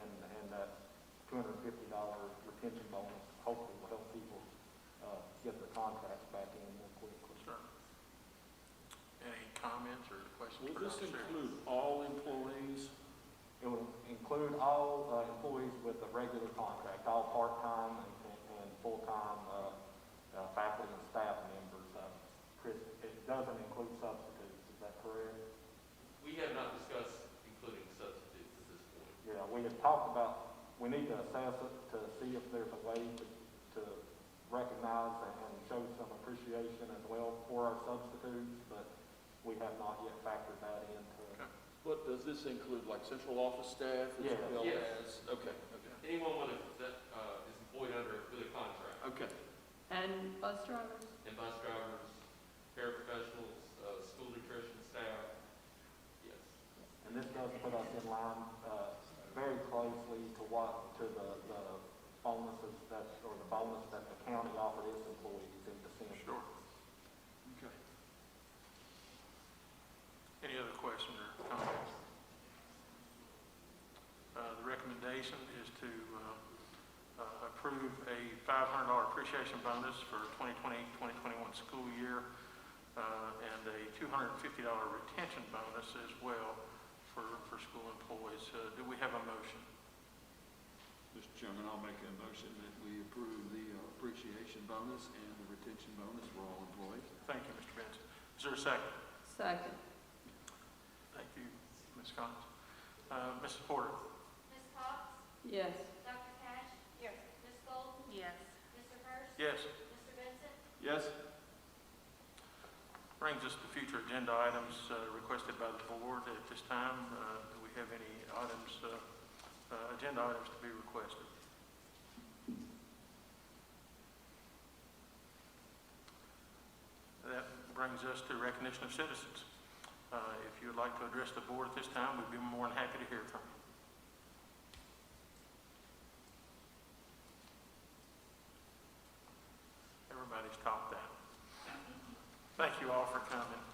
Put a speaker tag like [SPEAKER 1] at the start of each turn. [SPEAKER 1] two hundred and fifty dollar retention bonus, hopefully will help people, uh, get their contracts back in more quickly.
[SPEAKER 2] Sure. Any comments or questions
[SPEAKER 3] Will
[SPEAKER 2] for
[SPEAKER 3] this
[SPEAKER 2] Dr. Sears?
[SPEAKER 3] include all employees?
[SPEAKER 1] It would include all uh, employees with a regular contract, all part-time and, and- and full-time, uh, uh, faculty and staff members. Uh, Chris, it doesn't include substitutes, is that correct?
[SPEAKER 4] We have not discussed including substitutes at this point.
[SPEAKER 1] Yeah, we had talked about, we need to assess it to see if there's a way to, to recognize and and show some appreciation as well for our substitutes, but we have not yet factored that into.
[SPEAKER 2] Okay.
[SPEAKER 3] What, does this include like central office staff as
[SPEAKER 1] Yes.
[SPEAKER 3] well
[SPEAKER 4] Yes.
[SPEAKER 3] as? Okay, okay,
[SPEAKER 4] Anyone with a, that, uh, is employed under, with a contract,
[SPEAKER 3] okay.
[SPEAKER 5] And bus drivers?
[SPEAKER 4] and bus drivers, paraprofessionals, uh, school nutrition staff, yes.
[SPEAKER 1] And this does put us in line, uh, very closely to what, to the, the bonuses that, or the bonus that the county offered its employees in December.
[SPEAKER 2] Sure. Okay. Any other questions or comments? Uh, The recommendation is to uh, uh, approve a $500 appreciation bonus for 2020-2021 school year uh, and a $250 retention bonus as well for, for school employees. Uh, Do we have a motion?
[SPEAKER 6] Mr. Chairman, I'll make a motion that we approve the uh, appreciation bonus and the retention bonus for all employees.
[SPEAKER 2] Thank you, Mr. Benson. Is there a second?
[SPEAKER 5] Second.
[SPEAKER 2] Thank you, Ms. Collins. Uh, Mrs. Porter?
[SPEAKER 7] Ms. Cox?
[SPEAKER 5] Yes.
[SPEAKER 7] Dr. Cash? Yes. Ms. Golden?
[SPEAKER 5] Yes.
[SPEAKER 7] Mr. Hurst?
[SPEAKER 2] Yes.
[SPEAKER 7] Mr. Vincent?
[SPEAKER 3] Yes?
[SPEAKER 2] Brings us to future agenda items uh, requested by the board at this time. Uh, Do we have any items, uh, uh, agenda items to be requested? That brings us to recognition of citizens. Uh, If you would like to address the board at this time, we'd be more than happy to hear from you. Everybody's talked that. Thank you all for coming.